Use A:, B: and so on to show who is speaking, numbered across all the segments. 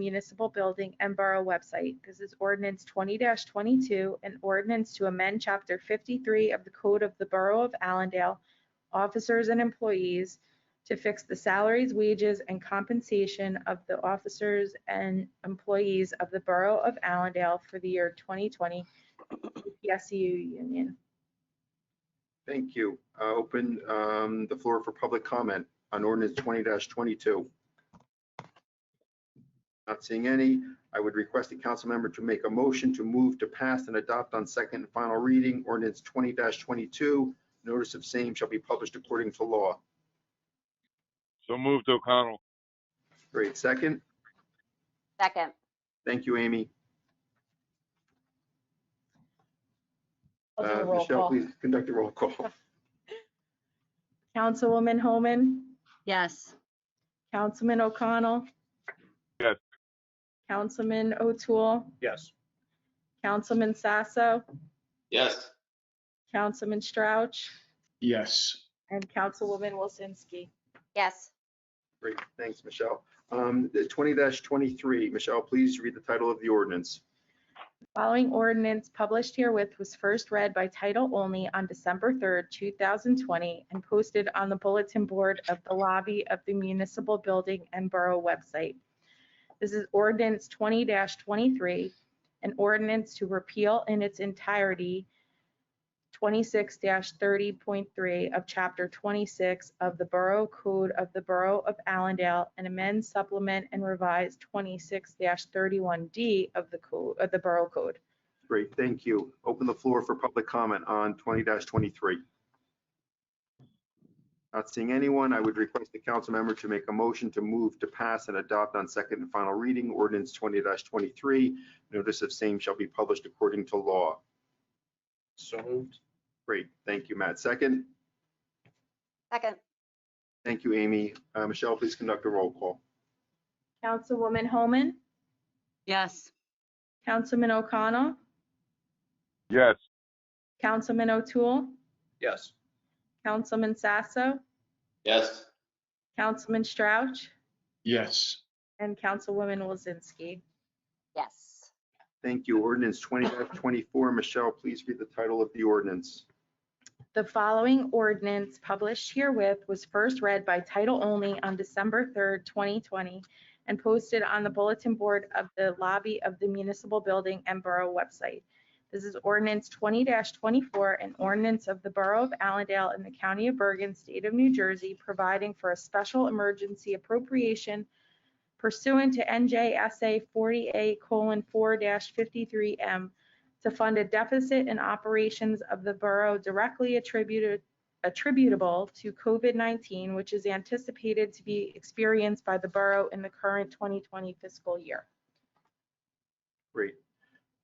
A: municipal building and borough website. This is ordinance twenty twenty-two, an ordinance to amend chapter fifty-three of the Code of the Borough of Allendale, officers and employees to fix the salaries, wages, and compensation of the officers and employees of the Borough of Allendale for the year twenty twenty PSU union.
B: Thank you. Uh, Open um, the floor for public comment on ordinance twenty twenty-two. Not seeing any. I would request the council member to make a motion to move to pass and adopt on second and final reading ordinance twenty twenty-two. Notice of same shall be published according to law.
C: So moved, O'Connell.
B: Great. Second.
D: Second.
B: Thank you, Amy.
A: I'll do
B: Uh,
A: a roll
B: Michelle,
A: call.
B: please conduct a roll call.
A: Councilwoman Homan,
D: Yes.
A: Councilman O'Connell.
C: Yes.
A: Councilman O'Toole,
E: Yes.
A: Councilman Sasso,
F: yes,
A: Councilman Strouch,
E: Yes.
A: and Councilwoman Wilsinski.
D: Yes.
B: Great. Thanks, Michelle. Um, the Twenty twenty-three. Michelle, please read the title of the ordinance.
A: Following ordinance published herewith was first read by title only on December 3rd, 2020, and posted on the bulletin board of the lobby of the municipal building and borough website. This is ordinance 20-23, an ordinance to repeal in its entirety 26-30.3 of Chapter 26 of the Borough Code of the Borough of Allendale and amend, supplement, and revise 26-31D of the code, of the Borough Code.
B: Great, thank you. Open the floor for public comment on twenty twenty-three. Not seeing anyone, I would request the council member to make a motion to move to pass and adopt on second and final reading ordinance twenty twenty-three. Notice of same shall be published according to law.
E: So moved.
B: Great, thank you, Matt. Second,
D: Second.
B: thank you, Amy. Uh, Michelle, please conduct a roll call.
A: Councilwoman Homan,
D: Yes.
A: Councilman O'Connell,
C: Yes.
A: Councilman O'Toole,
E: Yes.
A: Councilman Sasso,
F: yes.
A: Councilman Strouch,
E: Yes.
A: and Councilwoman Wozinski.
D: Yes.
B: Thank you. Ordinance twenty twenty-four. Michelle, please read the title of the ordinance.
A: The following ordinance published herewith was first read by title only on December 3rd, 2020, and posted on the bulletin board of the lobby of the municipal building and borough website. This is ordinance 20-24, an ordinance of the Borough of Allendale in the County of Bergen, State of New Jersey, providing for a special emergency appropriation pursuant to NJSA 40A:4-53M to fund a deficit in operations of the borough directly attributed, attributable to COVID-19, which is anticipated to be experienced by the borough in the current 2020 fiscal year.
B: Great.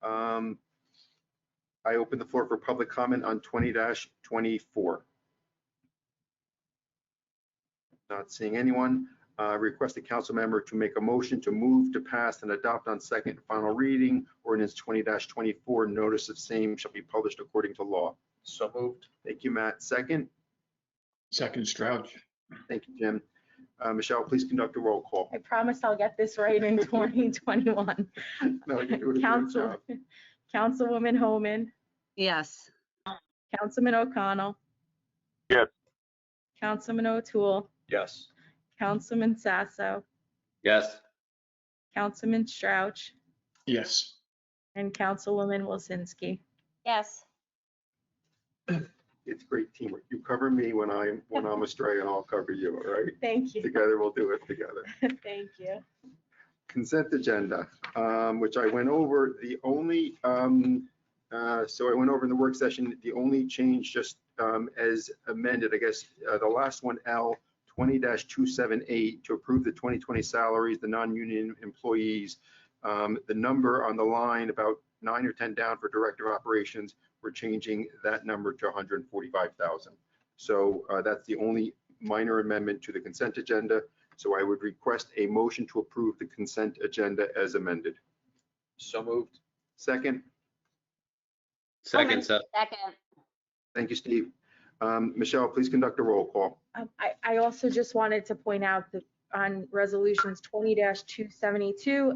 B: Um, I open the floor for public comment on twenty twenty-four. Not seeing anyone. Uh, Request the council member to make a motion to move to pass and adopt on second and final reading ordinance twenty twenty-four. Notice of same shall be published according to law.
E: So moved.
B: Thank you, Matt. Second.
E: Second Strouch.
B: Thank you, Jim. Uh, Michelle, please conduct a roll call.
A: I promise I'll get this right in 2021.
B: No, you're doing a great
A: Council,
B: job.
A: Councilwoman Homan,
D: Yes.
A: Councilman O'Connell.
C: Yes.
A: Councilman O'Toole,
E: Yes.
A: Councilman Sasso,
F: Yes.
A: Councilman Strouch,
E: Yes.
A: and Councilwoman Wilsinski.
D: Yes.
B: It's great teamwork. You cover me when I'm, when I'm astray and I'll cover you, all right?
A: Thank you.
B: Together, we'll do it together.
A: Thank you.
B: consent agenda, um, which I went over, the only, um, uh, so I went over in the work session, the only change just um, as amended, I guess, uh, the last one, L, 20-278, to approve the 2020 salaries, the non-union employees. Um, The number on the line, about nine or 10 down for Director of Operations, we're changing that number to 145,000. So uh, that's the only minor amendment to the consent agenda. So I would request a motion to approve the consent agenda as amended.
E: So moved.
B: Second,
F: Second, Seth.
D: Second.
B: thank you, Steve. Um, Michelle, please conduct a roll call.
A: Um, I, I also just wanted to point out that on resolutions twenty two seventy-two